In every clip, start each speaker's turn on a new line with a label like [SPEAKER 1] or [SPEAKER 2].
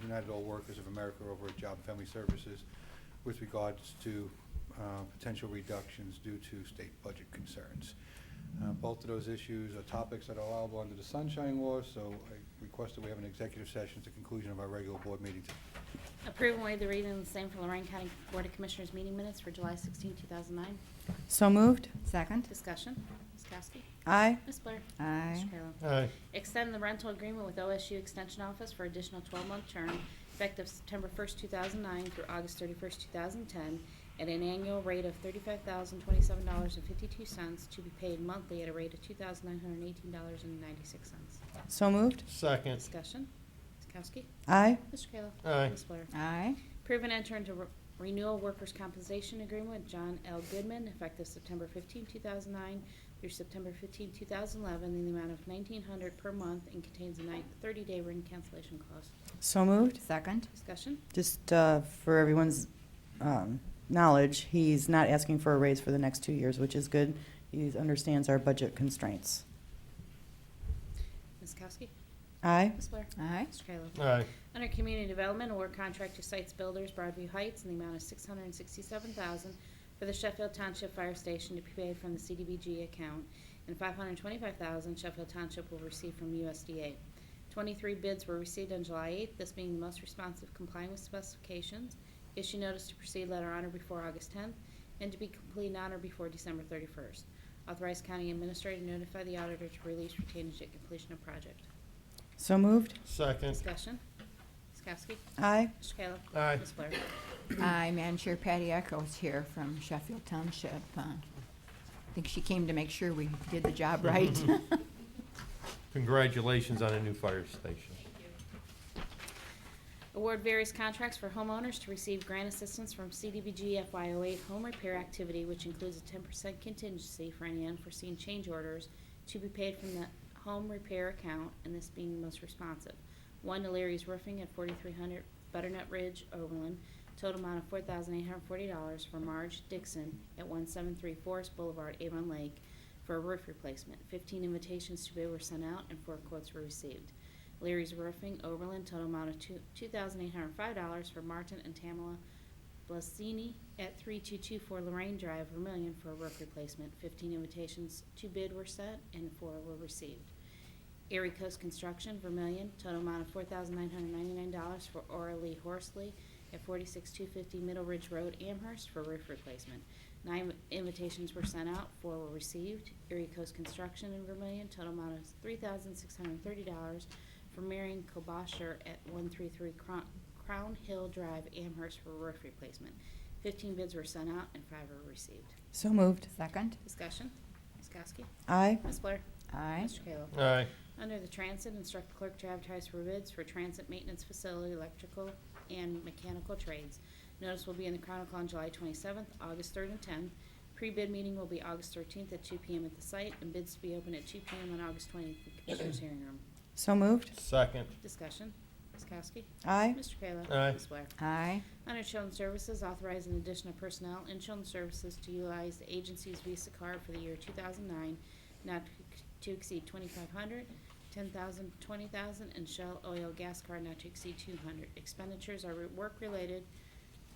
[SPEAKER 1] United All Workers of America over at Job and Family Services with regards to uh, potential reductions due to state budget concerns. Uh, Both of those issues are topics that are allowable under the sunshine law, so I request that we have an executive session at the conclusion of our regular board meeting today.
[SPEAKER 2] Approve and waive the reading of the same for Lorraine County Board of Commissioners meeting minutes for July 16, 2009.
[SPEAKER 3] So moved.
[SPEAKER 4] Second.
[SPEAKER 2] Discussion. Ms. Kowski.
[SPEAKER 3] Aye.
[SPEAKER 2] Ms. Blair.
[SPEAKER 4] Aye.
[SPEAKER 2] Mr. Kayla.
[SPEAKER 5] aye,
[SPEAKER 2] Extend the rental agreement with OSU Extension Office for additional 12-month term effective September 1st, 2009 through August 31st, 2010, at an annual rate of $35,027.52 to be paid monthly at a rate of $2,918.96.
[SPEAKER 3] So moved.
[SPEAKER 5] second,
[SPEAKER 2] Discussion. Ms. Kowski.
[SPEAKER 3] Aye.
[SPEAKER 2] Mr. Kayla.
[SPEAKER 5] Aye.
[SPEAKER 2] Ms. Blair.
[SPEAKER 4] Aye.
[SPEAKER 2] Approve and enter into re- renewal workers' compensation agreement with John L. Goodman effective September 15, 2009 through September 15, 2011 in the amount of 1900 per month and contains a nine- 30-day written cancellation clause.
[SPEAKER 3] So moved.
[SPEAKER 4] Second.
[SPEAKER 2] Discussion?
[SPEAKER 3] Just uh, for everyone's um, knowledge, he's not asking for a raise for the next two years, which is good. He understands our budget constraints.
[SPEAKER 2] Ms. Kowski?
[SPEAKER 3] Aye.
[SPEAKER 2] Ms. Blair?
[SPEAKER 4] Aye.
[SPEAKER 2] Mr. Kayla?
[SPEAKER 5] aye,
[SPEAKER 2] Under Community Development, award contract to Sites Builders Broadview Heights in the amount of 667000 for the Sheffield Township Fire Station to be paid from the CDBG account, and 525000 Sheffield Township will receive from USDA. 23 bids were received on July 8th, this being the most responsive complying with specifications. Issue notice to proceed letter honor before August 10th, and to be complete honor before December 31st. Authorize County Administrator to notify the auditor to release retainage at completion of project.
[SPEAKER 3] So moved.
[SPEAKER 5] second,
[SPEAKER 2] Discussion. Ms. Kowski?
[SPEAKER 3] Aye.
[SPEAKER 2] Mr. Kayla?
[SPEAKER 5] aye,
[SPEAKER 2] Ms. Blair?
[SPEAKER 4] Aye. Madam Chair, Patty Echoes here from Sheffield Township. Uh, I think she came to make sure we did the job right.
[SPEAKER 5] congratulations on a new fire station.
[SPEAKER 2] Award various contracts for homeowners to receive grant assistance from CDBG FY08 home repair activity, which includes a 10% contingency for any unforeseen change orders to be paid from the home repair account, and this being the most responsive. One to Larry's Roofing at 4300 Butternut Ridge, Overland, total amount of $4,840 for Marge Dixon at 173 Forest Boulevard, Avon Lake, for a roof replacement. 15 invitations to bid were sent out, and four quotes were received. Leary's Roofing, Oberlin, total amount of two two thousand eight hundred five dollars for Martin and Tamela Blasini at three two two four Lorraine Drive, Vermillion, for a roof replacement. Fifteen invitations to bid were sent and four were received. Erie Coast Construction, Vermillion, total amount of four thousand nine hundred ninety-nine dollars for Aura Lee Horsley at forty-six two fifty Middle Ridge Road, Amherst, for roof replacement. Nine invitations were sent out, four were received. Erie Coast Construction in Vermillion, total amount of three thousand six hundred thirty dollars for Marion Kobasher at 133 Crown- Crown Hill Drive, Amherst for roof replacement. 15 bids were sent out and five were received.
[SPEAKER 3] So moved.
[SPEAKER 4] Second.
[SPEAKER 2] Discussion, Ms. Kowski,
[SPEAKER 3] Aye.
[SPEAKER 2] Ms. Blair,
[SPEAKER 4] Aye.
[SPEAKER 2] Mr. Kayla.
[SPEAKER 5] Aye,
[SPEAKER 2] Under the Transit, instruct the clerk to advertise for bids for transit maintenance facility, electrical, and mechanical trades. Notice will be in the Chronicle on July 27th, August 3rd, and 10th. Pre-bid meeting will be August 13th at 2 PM at the site, and bids to be open at 2 PM on August 20th in the Commissioners' hearing room.
[SPEAKER 3] So moved.
[SPEAKER 5] second,
[SPEAKER 2] Discussion, Ms. Kowski,
[SPEAKER 3] Aye.
[SPEAKER 2] Mr. Kayla.
[SPEAKER 5] Aye.
[SPEAKER 2] Ms. Blair.
[SPEAKER 4] Aye.
[SPEAKER 2] Under Children's Services, authorize an addition of personnel in Children's Services to utilize the agency's Visa card for the year 2009, not to exceed 2,500, 10,000, 20,000, and Shell Oil Gas Card not to exceed 200. Expenditures are work-related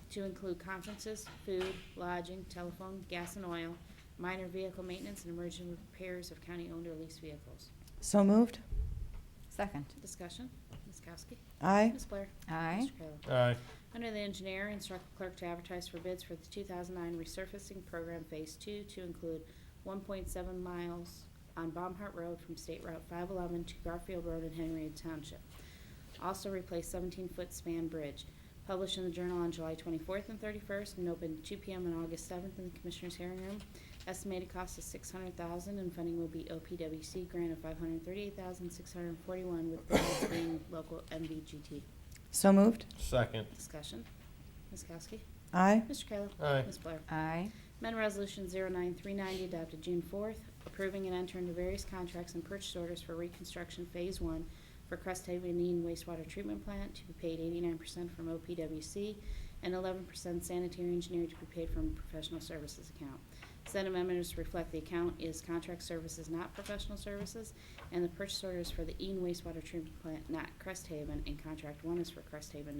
[SPEAKER 2] to include conferences, food, lodging, telephone, gas and oil, minor vehicle maintenance, and emergency repairs of county-owned or leased vehicles.
[SPEAKER 3] So moved.
[SPEAKER 4] Second.
[SPEAKER 2] Discussion, Ms. Kowski.
[SPEAKER 3] Aye.
[SPEAKER 2] Ms. Blair.
[SPEAKER 4] Aye.
[SPEAKER 2] Mr. Kayla.
[SPEAKER 5] aye,
[SPEAKER 2] Under the engineer, instruct the clerk to advertise for bids for the 2009 resurfacing program Phase 2 to include 1.7 miles on Baumhart Road from State Route 511 to Garfield Road in Henry Township. Also replace 17-foot span bridge. Published in the Journal on July 24th and 31st and open 2 p.m. on August 7th in the Commissioners' hearing room. Estimated cost is $600,000 and funding will be OPWC grant of $538,641 with grants being local MVGT.
[SPEAKER 3] So moved.
[SPEAKER 5] second,
[SPEAKER 2] Discussion. Ms. Kowski?
[SPEAKER 3] Aye.
[SPEAKER 2] Mr. Kayla?
[SPEAKER 5] Aye.
[SPEAKER 2] Ms. Blair?
[SPEAKER 4] Aye.
[SPEAKER 2] Amendment Resolution 09390 adopted June 4th, approving and entering into various contracts and purchase orders for reconstruction Phase 1 for Cresthaven Indian Wastewater Treatment Plant to be paid 89% from OPWC and 11% sanitary engineer to be paid from professional services account. Said amendment is to reflect the account is contract services, not professional services, and the purchase order is for the Ean wastewater treatment plant, not Cresthaven, and contract one is for Cresthaven,